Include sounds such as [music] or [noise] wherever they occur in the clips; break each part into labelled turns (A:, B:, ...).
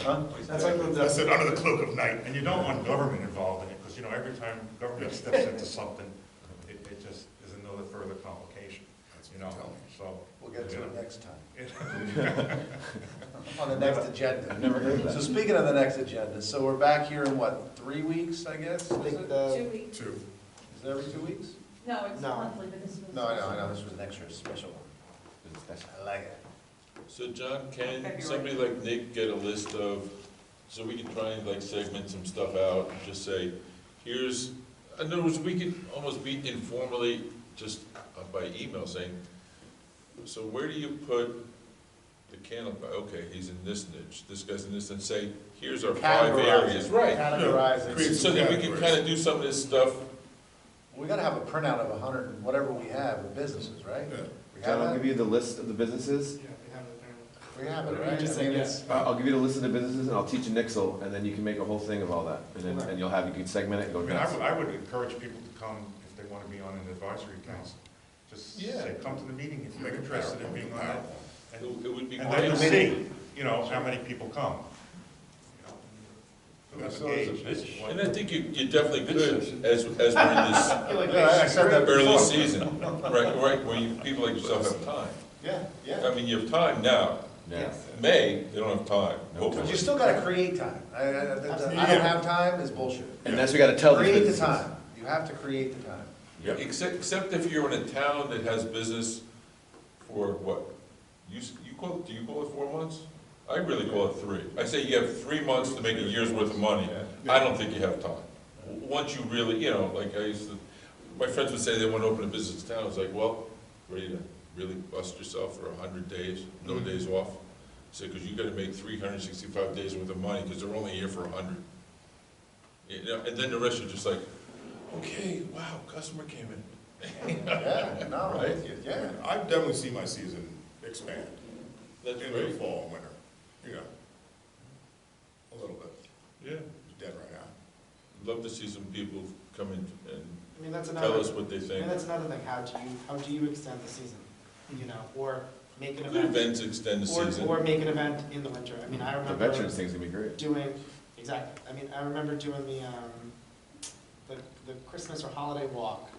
A: Huh? That's like with the-
B: I said, under the cloak of night, and you don't want government involved in it, because, you know, every time government steps into something, it, it just is another further complication, you know, so.
C: We'll get to it next time,
B: [laughs] next.
C: [laughs] on the next agenda. [laughs] Never heard that. So speaking of the next agenda, so we're back here in what, three weeks, I guess?
A: I
C: Is
A: think
C: it?
A: the,
D: Two weeks.
B: Two,
C: Is it every two weeks?
D: No, it's
A: No.
D: monthly, but this was.
C: No, I know, I know, this was an extra special one. I like it.
E: So John, can
D: February.
E: somebody like Nick get a list of, so we can try and like segment some stuff out and just say, here's, in other words, we could almost be informally, just uh, by email saying, so where do you put the candle, okay, he's in this niche, this guy's in this, and say, here's our five
C: Categorize
E: areas,
C: it.
E: right?
C: Categorize it.
B: Create-
E: So that we can kind of do some of this stuff,
C: We gotta have a printout of a hundred, and whatever we have of businesses, right?
B: yeah.
C: We
F: John,
C: have
F: I'll
C: that?
F: give you the list of the businesses.
C: We have it, right? I mean, it's-
F: I- I'll give you the list of the businesses and I'll teach you Nixle and then you can make a whole thing of all that. And then, and you'll have, you can segment it and
B: I
F: go
B: mean, I
F: nuts.
B: would, I would encourage people to come if they want to be on an advisory council. Just
E: Yeah.
B: say, come to the meeting if you're interested in being on that.
E: it
B: And
E: it would be
B: and then you'll
E: great.
B: see, you know, how many people come. You know,
C: So it's a
B: Engage.
E: And I think you, you definitely could, as, as we're in
B: [laughs]
E: this
C: Yeah, I- I said that
E: early
C: before.
E: season, right, right, where you, people like yourself have time.
C: Yeah, yeah.
E: I mean, you have time now.
F: Yeah.
E: May, they don't have time,
C: But
E: hopefully.
C: you still gotta create time. I, I, I I don't have time is bullshit.
F: And that's, we gotta tell these
C: Create the
F: businesses.
C: time. You have to create the [laughs] time.
E: Except, except if you're in a town that has business for what? You, s- you call, do you call it four months? I really call it three. I say you have three months to make a year's worth of money. I don't think you have time. W- Once you really, you know, like I used to, my friends would say they want to open a business in town. I was like, well, ready to really bust yourself for a hundred days, no days off? I said, because you got to make three hundred and sixty-five days worth of money because they're only here for a hundred. You know, and then the rest are just like, okay, wow, customer came in.
C: Yeah, no, I'm with
E: Right.
C: you, yeah.
G: I definitely see my season expand
E: That's
G: in the
E: great.
G: fall, and winter, you know, a little bit.
E: Yeah.
G: It's dead right now.
E: Love to see some people come in and
A: I mean, that's
E: tell us
A: another,
E: what they
A: I
E: think.
A: mean, that's another thing, how do you, how do you extend the season? You know, or make an
E: Good
A: event,
E: events extend the season.
A: or, or make an event in the winter, I mean, I
F: The
A: remember
F: veterans thing's gonna be great.
A: doing, exactly, I mean, I remember doing the, um, the, the Christmas or holiday walk.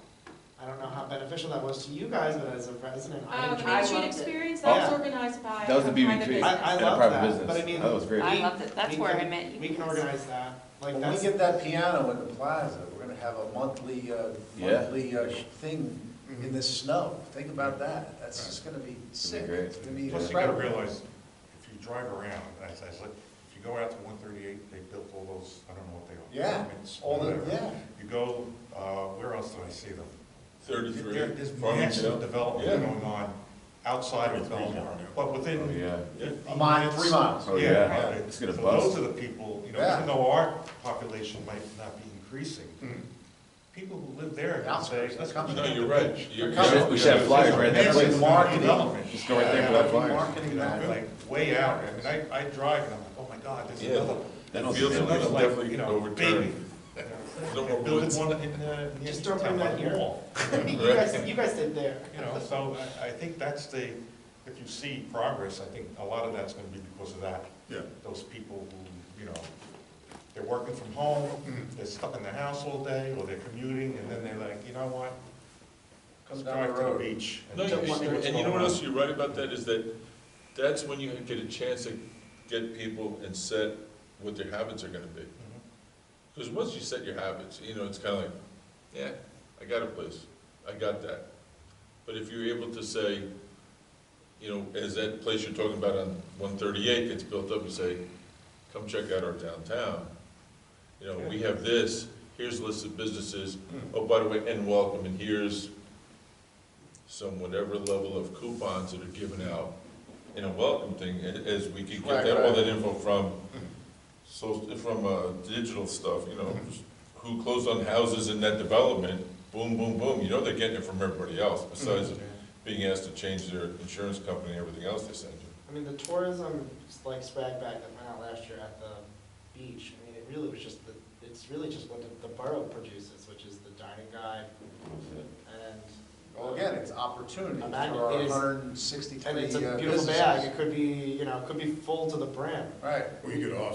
A: I don't know how beneficial that was to you guys, but as a resident, I
H: Um,
D: Uh,
A: enjoyed
D: the
A: it.
D: Main Street Experience, that was organized by.
F: That was the
D: a
A: I,
D: private
F: BBG.
D: business.
A: I
F: And a
A: love
F: private
A: that,
F: business.
A: but I mean.
F: That was great.
H: I
A: we-
H: loved it. That's
A: we
H: where I
A: can-
H: met you
A: We can
H: guys.
A: organize that, like
C: When we
A: that's.
C: get that piano in the plaza, we're gonna have a monthly, uh,
F: Yeah.
C: monthly uh, sh- thing in
A: Mm-hmm.
C: this snow. Think about that. That's just gonna be sick.
F: great.
C: It's gonna be
B: Plus, you gotta
C: incredible.
B: realize, if you drive around, as I said, if you go out to one thirty-eight, they built all those, I don't know what they are.
C: Yeah,
B: apartments,
C: all the,
B: whatever.
C: yeah.
B: You go, uh, where else did I see them?
E: Thirty-three.
B: There- There's
E: Farmingdale.
B: massive development
E: Yeah.
B: going on outside of Belmar, but
F: Oh,
B: within
F: yeah.
C: A
B: fifteen
C: mile,
B: minutes.
C: three miles.
F: Oh,
B: Yeah,
F: yeah.
B: right.
F: It's gonna
B: So
F: bust.
B: Those are the people, you know,
C: Yeah.
B: even though our population might not be increasing, people who live there can
C: Mm.
B: say,
C: Outskirts,
B: let's
C: come
B: come
C: to
B: to
E: No, you're right. You're-
F: We should- We should have flyers right there.
C: Massive marketing.
B: Development.
F: Just go right there
C: Yeah,
F: for that
C: we're
F: flyer.
C: Marketing
B: You know,
C: that.
B: like way out, I mean, I, I drive and I'm like, oh my God, there's
E: Yeah.
B: another,
F: That don't
E: Feels
B: there's
F: sound
E: like
B: another
E: it's
B: like,
E: definitely
B: you know, baby.
E: overturned. No more
B: And Building
E: woods.
B: one in the, in the
A: Just
B: East
A: don't
B: town,
A: bring that
B: like
A: here.
B: wall.
A: [laughs] You guys, you guys did there.
B: You know, so I, I think that's the, if you see progress, I think a lot of that's gonna be because of that.
G: Yeah.
B: Those people who, you know, they're working from home, they're stuck in their house all day, or they're commuting, and then they're like, you know what?
C: Come
B: Let's
C: down the
B: drive to the
C: road.
B: beach.
E: No,
B: just
E: you-
B: see what's
E: and you know
B: going
E: what
B: on."
E: else you're right about that is that that's when you get a chance to get people and set what their habits are gonna be.
B: Mhm.
E: Because once you set your habits, you know, it's kind of like, yeah, I got a place, I got that. But if you're able to say, you know, as that place you're talking about on one thirty-eight gets built up, you say, come check out our downtown. You know, we have this, here's a list of businesses, oh, by the way, and welcome, and here's some whatever level of coupons that are given out in a welcome thing, a- as we could get that, all that info from so, from, uh, digital stuff, you know, who closed on houses in that development, boom, boom, boom, you know they're getting it from everybody else, besides
A: Mm-hmm.
E: being asked to change their insurance company and everything else they send you.
A: I mean, the tourism, like swag bag that went out last year at the beach, I mean, it really was just the, it's really just what the, the borough produces, which is the dining guide and.
C: Well, again, it's opportunity
A: A
C: for
A: magnet
C: our
A: is-
C: hundred and sixty-three
A: And it's a
C: uh,
A: beautiful
C: businesses.
A: bag, it could be, you know, it could be full to the brim.
C: Right.
G: Well, you could also